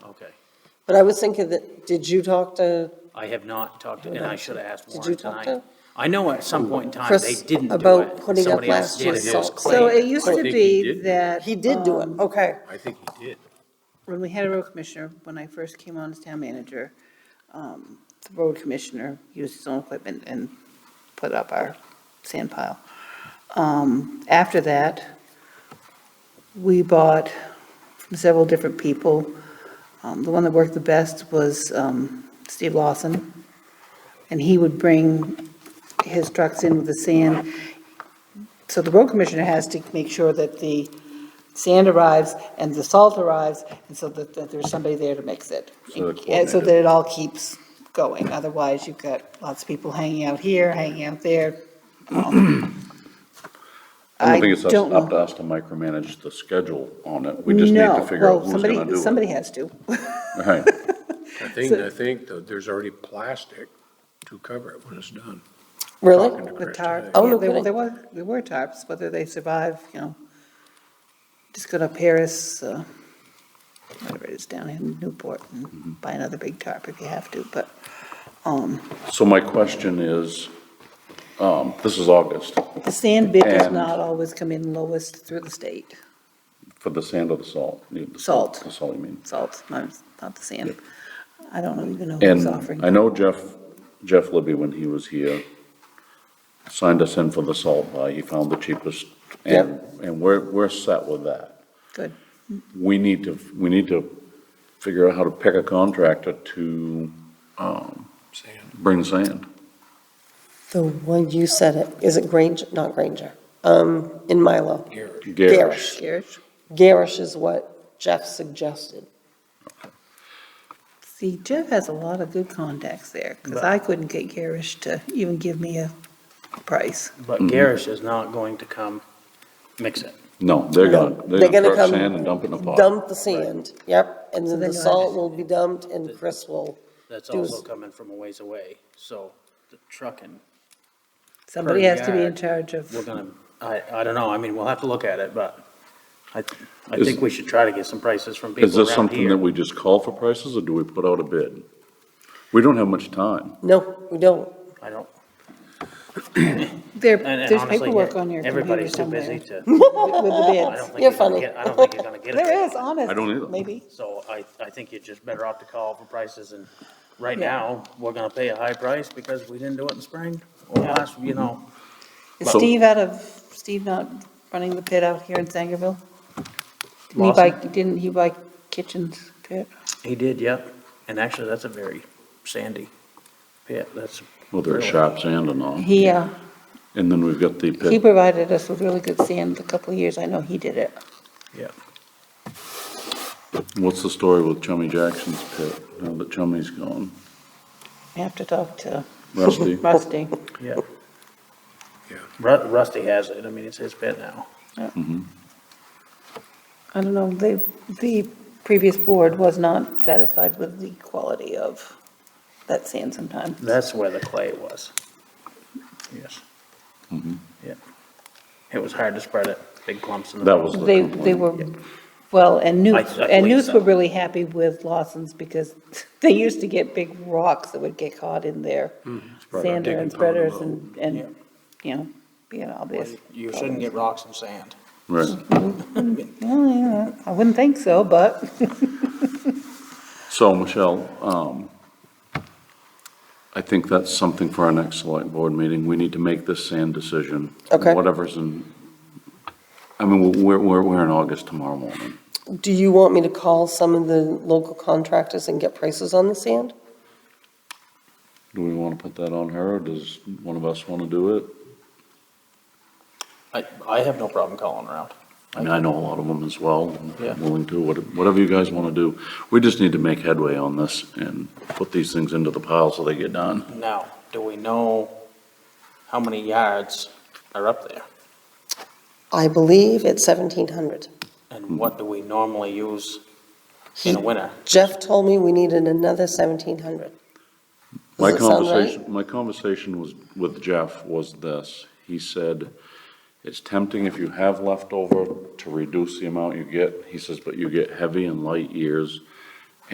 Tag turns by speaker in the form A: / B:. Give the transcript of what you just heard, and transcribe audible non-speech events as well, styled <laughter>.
A: But I was thinking that, did you talk to
B: I have not talked, to and I should have asked
A: Did you
B: Warren
A: talk
B: tonight.
A: to
B: I know at some point in time, they
A: Chris
B: didn't do it.
A: about putting up
B: Somebody else
A: last
B: did, and
A: year's
B: it was
A: salt?
B: Clay.
C: So it used
D: I
C: to
D: think he
C: be
D: did.
C: that.
A: He did do it,
C: um,
A: okay.
D: I think he did.
C: When we had a road commissioner, when I first came on as town manager, um, the road commissioner used his own equipment and put up our sand pile. Um, after that, we bought from several different people. Um, the one that worked the best was, um, Steve Lawson. And he would bring his trucks in with the sand. So the road commissioner has to make sure that the sand arrives and the salt arrives, and so that, that there's somebody there to mix it.
E: So they're
C: And so
E: coordinated.
C: that it all keeps going, otherwise you've got lots of people hanging out here, hanging out there.
E: I don't think it's us-
C: don't
E: up
C: know.
E: to us to micromanage the schedule on it. We just need to
C: No,
E: figure out
C: well,
E: who's
C: somebody-
E: gonna do it.
C: Somebody has to.
E: Right.
D: I think, I think that there's already plastic to cover it when it's done.
A: Really?
D: Talking to
C: The
D: Chris
C: tarp,
D: today.
A: Oh, no
C: yeah, there were,
A: kidding.
C: there were, there were tarps, whether they survive, you know. Just go to Paris, uh, whatever it is down in Newport
E: Mm-hmm.
C: and buy another big tarp if you have to, but, um,
E: So my question is, um, this is August
C: the sand bid does
E: And-
C: not always come in lowest through the state,
E: for the sand or the salt? The
C: Salt.
E: The salt, I mean.
C: salt, not, not the sand. I don't know even know who's
E: And I
C: offering.
E: know Jeff, Jeff Libby, when he was here, signed us in for the salt buy. He found the cheapest. And, and we're, we're set with that.
C: Good.
E: We need to, we need to figure out how to pick a contractor to, um,
D: Sand.
E: bring sand.
A: The one you said it, is it Granger, not Granger, um, in Milo?
D: Here,
E: Garish.
C: Garish,
A: Garish is what Jeff suggested.
C: see, Jeff has a lot of good contacts there, because
B: But-
C: I couldn't get Garish to even give me a price.
B: But
E: Mm.
B: Garish is not going to come mix it.
E: No, they're gonna,
A: They're
E: they're
A: gonna
E: gonna truck
A: come
E: sand and dump it in a pot.
A: Dump the sand, yep, and
C: So
A: then
C: then
A: the
C: you'll have
A: salt
C: it.
A: will be dumped and Chris will,
B: That's
A: It was-
B: also coming from a ways away, so the trucking,
C: Somebody has to be in
B: yard.
C: charge of,
B: we're gonna, I, I don't know, I mean, we'll have to look at it, but I, I
E: Is-
B: think we should try to get some prices from
E: Is
B: people
E: this
B: around
E: something that
B: here.
E: we just call for prices or do we put out a bid? We don't have much time.
A: no, we don't.
B: I don't,
C: there,
B: and- and
C: there's
B: honestly,
C: paperwork on your computer
B: everybody's too busy
C: somewhere
B: to,
C: <laughs> with the
B: I don't
A: <laughs>
C: bids.
B: think
A: You're
B: you're gonna
A: funny.
B: get, I don't think you're gonna get it.
A: <laughs>
C: There is, honest.
E: I don't either.
C: Maybe.
B: So I, I think you're just better off to call for prices and right
C: Yeah.
B: now, we're gonna pay a high price because we didn't do it in spring. Last, you know,
C: Is
E: So-
C: Steve out of, Steve not running the pit out here in Sangerville? Didn't he buy,
B: Lawson?
C: didn't he buy kitchens pit?
B: he did, yep. And actually, that's a very sandy pit. That's,
E: Whether it's
B: Really?
E: sharp sand or not.
C: He, uh,
E: And then we've got the
C: he
E: pit.
C: provided us with really good sand a couple of years. I know he did it.
B: yeah.
E: What's the story with Chummy Jackson's pit now that Chummy's gone?
C: I have to talk to
E: Rusty?
C: Rusty.
B: Yeah.
E: Oh.
D: Yeah.
B: Ru- Rusty has it. I mean, it's his pit now.
C: I don't know, the, the previous board was not satisfied with the quality of that sand sometimes.
B: That's where the clay was. Yes.
E: Mm-hmm.
B: Yeah. It was hard to spread it, big clumps in the.
E: That
B: road.
E: was the
C: They, they
E: complaint.
C: were, well, and
B: I- I
C: Newt, and
B: believe
C: Newt
B: so.
C: were really happy with Lawson's because <laughs> they used to get big rocks that would get caught in their sander and spreaders and, and, you know, being obvious.
B: You shouldn't get rocks and sand.
E: Right.
C: Well, yeah, I wouldn't think so, but
E: So Michelle, um, I think that's something for our next select board meeting. We need to make this sand decision.
A: Okay.
E: Whatever's in, I mean, we're, we're, we're in August tomorrow morning.
A: Do you want me to call some of the local contractors and get prices on the sand?
E: Do we want to put that on her, or does one of us want to do it?
B: I, I have no problem calling around.
E: I mean, I know a lot of them as well, and
B: Yeah.
E: willing to, what- whatever you guys want to do. We just need to make headway on this and put these things into the pile so they get done.
B: Now, do we know how many yards are up there?
A: I believe it's seventeen hundred.
B: And what do we normally use in the winter?
A: Jeff told me we needed another seventeen hundred.
E: My
A: Does it sound right?
E: conversation, my conversation was, with Jeff was this. He said, it's tempting if you have leftover to reduce the amount you get. He says, but you get heavy and light years.